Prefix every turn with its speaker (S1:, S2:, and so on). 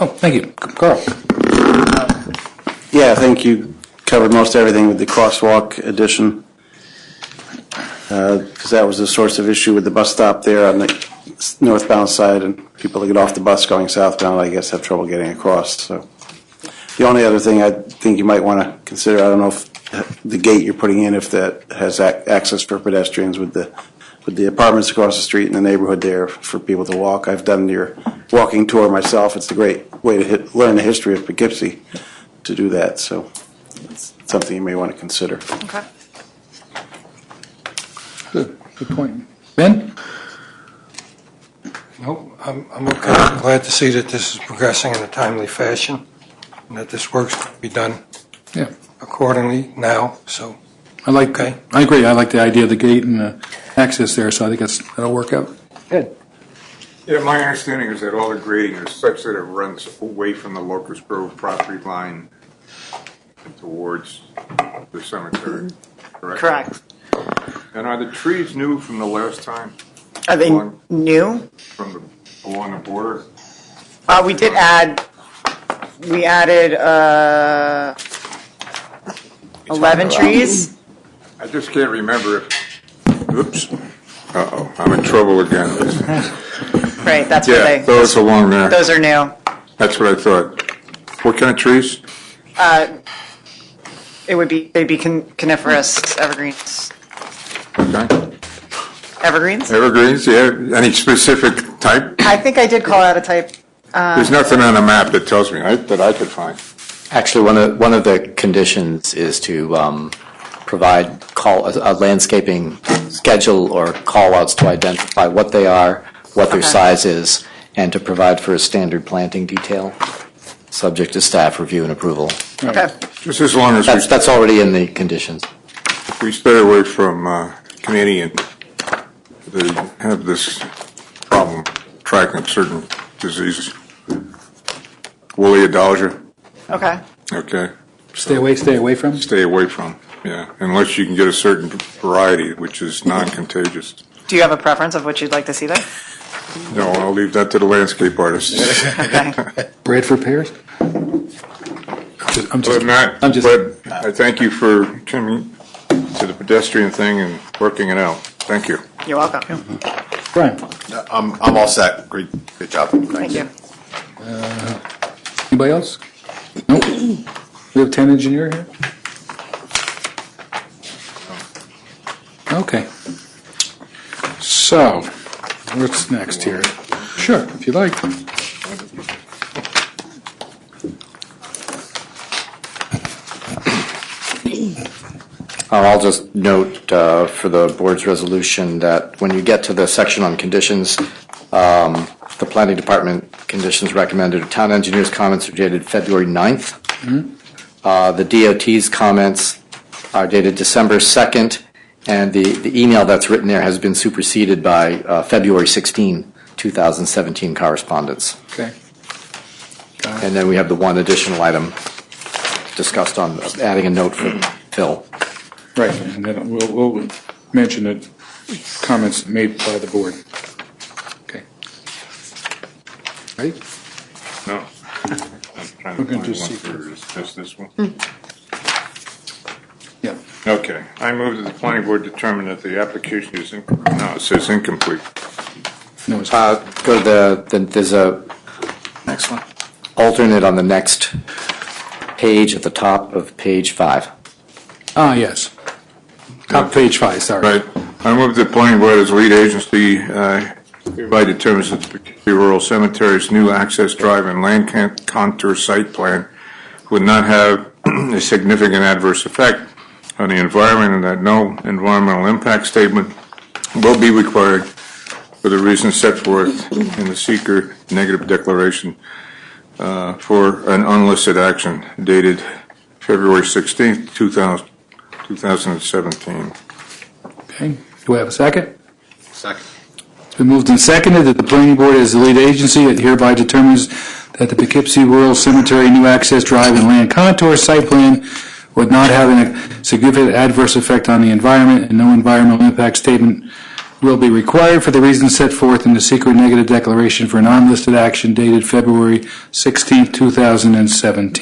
S1: Oh, thank you. Carl?
S2: Yeah, I think you covered most everything with the crosswalk addition. Because that was the source of issue with the bus stop there on the s- northbound side, and people that get off the bus going southbound, I guess, have trouble getting across, so. The only other thing I think you might want to consider, I don't know if the gate you're putting in, if that has ac- access for pedestrians with the, with the apartments across the street in the neighborhood there for people to walk. I've done your walking tour myself. It's a great way to hit, learn the history of Poughkeepsie to do that, so it's something you may want to consider.
S3: Okay.
S1: Good, good point. Ben?
S4: Nope, I'm, I'm okay. I'm glad to see that this is progressing in a timely fashion and that this work's going to be done
S1: Yeah,
S4: accordingly now, so.
S1: I like,
S4: Okay.
S1: I agree, I like the idea of the gate and the access there, so I think that's, that'll work out. Good.
S5: Yeah, my understanding is that all the grading is such that it runs away from the Locust Grove property line towards the cemetery, correct?
S3: Mm-hmm. Correct.
S5: And are the trees new from the last time?
S3: Are they
S5: Along-
S3: new?
S5: From the, along the border?
S3: Uh, we did add, we added, uh, eleven trees.
S5: I just can't remember if, oops, uh-oh, I'm in trouble again.
S3: Right, that's what
S5: Yeah,
S3: they,
S5: those along there,
S3: those are new.
S5: that's what I thought. What kind of trees?
S3: It would be, they'd be con- coniferous evergreens.
S5: Okay.
S3: Evergreens?
S5: Evergreens, yeah, any specific type?
S3: I think I did call out a type. Uh,
S5: There's nothing on the map that tells me, I- that I could find.
S6: Actually, one of, one of the conditions is to um, provide call, a landscaping schedule or call-outs to identify what they are, what their
S3: Okay.
S6: size is, and to provide for a standard planting detail, subject to staff review and approval.
S3: Okay.
S5: Just as long as we
S6: That's, that's already in the conditions.
S5: we stay away from uh, Canadian, they have this problem tracking certain diseases. Woolly adalgia,
S3: Okay.
S5: okay,
S1: Stay away, stay away from?
S5: stay away from, yeah, unless you can get a certain variety, which is non-contagious.
S3: Do you have a preference of what you'd like to see there?
S5: No, I'll leave that to the landscape artists.
S3: Okay.
S1: Bradford pears? Just- I'm just-
S5: But not,
S1: I'm just-
S5: but I thank you for coming to the pedestrian thing and working it out. Thank you.
S3: You're welcome.
S1: Brian,
S7: I'm, I'm all set. Great, great job.
S3: Thank you.
S1: anybody else? Nope. We have town engineer here? Okay. So, what's next here? Sure, if you like.
S6: Uh, I'll just note uh, for the board's resolution that when you get to the section on conditions, um, the planning department conditions recommended, town engineer's comments are dated February 9th. Uh, The DOT's comments are dated December 2nd, and the the email that's written there has been superseded by uh, February 16, 2017 correspondence.
S1: Okay.
S6: And then we have the one additional item discussed on adding a note for Phil.
S1: Right, and then we'll, we'll mention the comments made by the board. Okay. Ready?
S5: No. I'm trying to
S1: We're gonna
S5: find
S1: just
S5: one
S1: see
S5: for- is this this one?
S1: Yeah.
S5: Okay, I move that the planning board determine that the application is, in- no, it says incomplete.
S1: No, it's,
S6: Uh, Go to the, then there's a. Next one. Alternate on the next page at the top of page five.
S1: ah, yes. Top page five, sorry.
S5: Right, I move that planning board as lead agency uh, hereby determines that the Poughkeepsie Rural Cemetery's new access drive and land con- contour site plan would not have a significant adverse effect on the environment and that no environmental impact statement will be required for the reasons set forth in the seeker negative declaration uh, for an unlisted action dated February 16th, 2000 2017.
S1: Okay, do I have a second?
S7: Second.
S1: It's been moved and seconded that the planning board as the lead agency it hereby determines that the Poughkeepsie Rural Cemetery New Access Drive and Land Contour Site Plan would not have a significant adverse effect on the environment and no environmental impact statement will be required for the reasons set forth in the secret negative declaration for an unlisted action dated February 16, 2017.